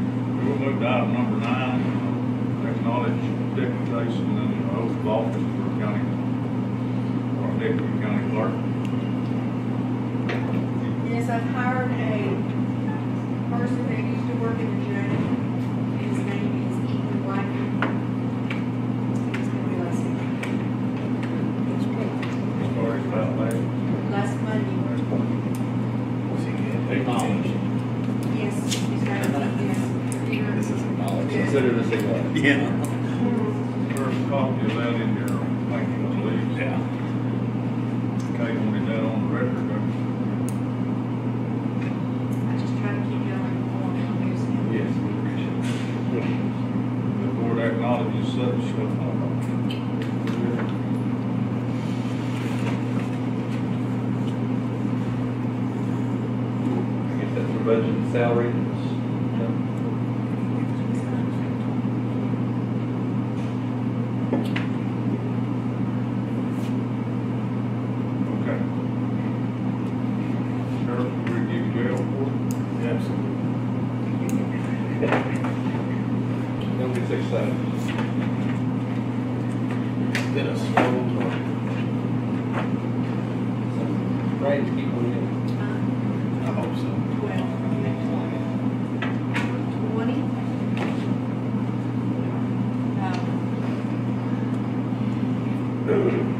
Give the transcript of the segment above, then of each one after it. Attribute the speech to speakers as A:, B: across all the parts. A: move to item number nine, acknowledge deputation and oath of office for county, or deputy county clerk.
B: Yes, I've hired a person that used to work in the jail. His name is Ethan White. He's gonna be last,
A: Started about last,
B: last Monday. Yes, he's right, yes. Here.
C: Consider this a what?
D: Yeah.
A: first copy of that in there, thank you, please.
D: Yeah.
A: Kate wanted that on the record, right?
B: I just try to keep y'all informed on this.
A: Yes. The board acknowledges such.
C: I guess that's for budget and salary.
A: Okay. Sheriff, we give you jail for it? Absolutely.
C: Don't get six seven.
D: Been a slow one.
C: Right, keep on
B: Time,
D: I hope so.
B: twelve, twenty. Um,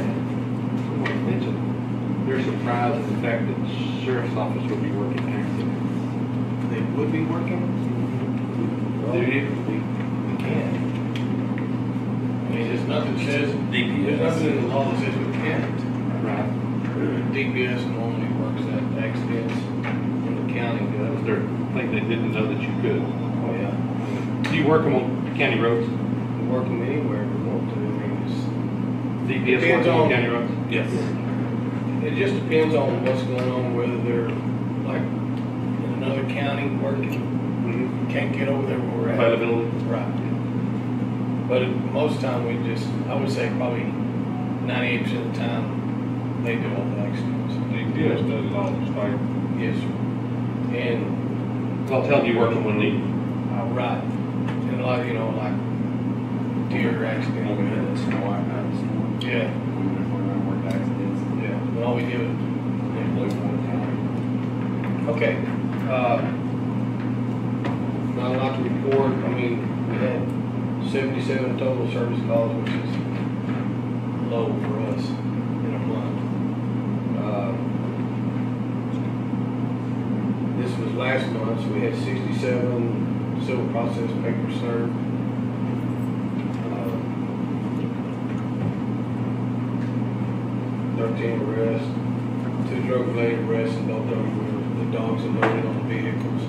E: Wayne mentioned, they're surprised at the fact that the sheriff's office will be working there.
D: They would be working?
E: Do you?
D: We can. I mean, there's nothing says, there's nothing in the law that says we can't.
E: Right.
D: DPS normally works at accidents in the county,
E: That was
D: does.
E: their thing, they didn't know that you could.
D: Oh, yeah.
E: Do you work them on county roads?
D: We're Working anywhere we want to, I mean, it's.
E: DPS
D: Depends
E: working
D: on-
E: on county roads?
D: Yes. It just depends on what's going on, whether they're like in another county working,
E: Mhm.
D: can't get over there where we're at.
E: Availability?
D: Right. But it- most time we just, I would say probably ninety-eight percent of the time, they do all the accidents.
A: DPS does it all the state.
D: Yes, sir. And,
E: I'll tell you working when needed.
D: uh, right, and a lot, you know, like deer accidents. Yeah, yeah, but all we do is Okay, uh, not a lot to report, I mean, we had seventy-seven total service calls, which is low for us in a month. Uh, This was last month, so we had sixty-seven civil process papers served. Uh, Thirteen arrests, two drug related arrests and both of them were, the dogs are loaded on vehicles.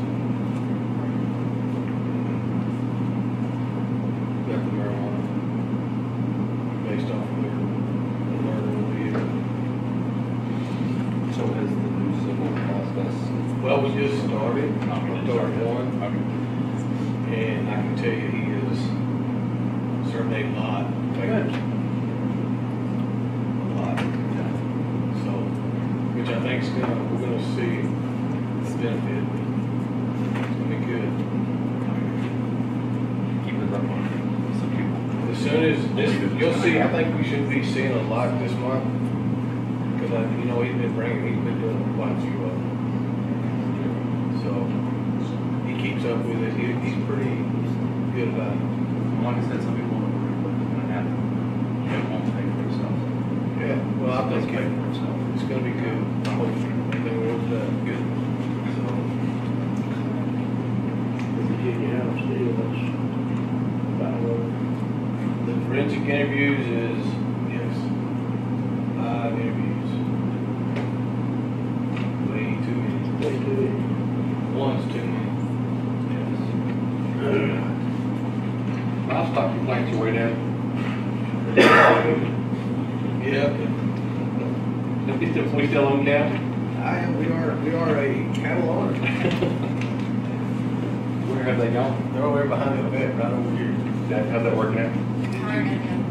D: Got the marijuana based off of their alert on the vehicle.
C: So has the new civil process.
D: Well, we just started, October one, and I can tell you he is surveyed a lot. papers. A lot. So, which I think's gonna, we're gonna see the benefit. It's gonna be good.
C: Keep it up on some people.
D: As soon as, this, you'll see, I think we should be seeing a lot this month. Cause I, you know, he's been bringing, he's been doing quite a few of them. So, he keeps up with it, he, he's pretty good about it.
F: Like I said, some people don't agree with it, and have to, it won't pay for itself.
D: Yeah, well, I
F: It does
D: think
F: pay
D: it-
F: for itself.
D: it's gonna be good, I hope, I think we'll, uh, good. So,
G: Virginia House deal, that's about what,
D: the forensic interviews is, yes, live interviews. Way too many,
G: they do
D: one's too many. Yes.
E: Livestock complaints are way down.
D: Yeah,
E: If we still, we still own cattle,
D: I, we are, we are a cattle owner.
E: where have they gone?
D: They're over there behind the vet, right over here.
E: How's that working out?
B: hired him.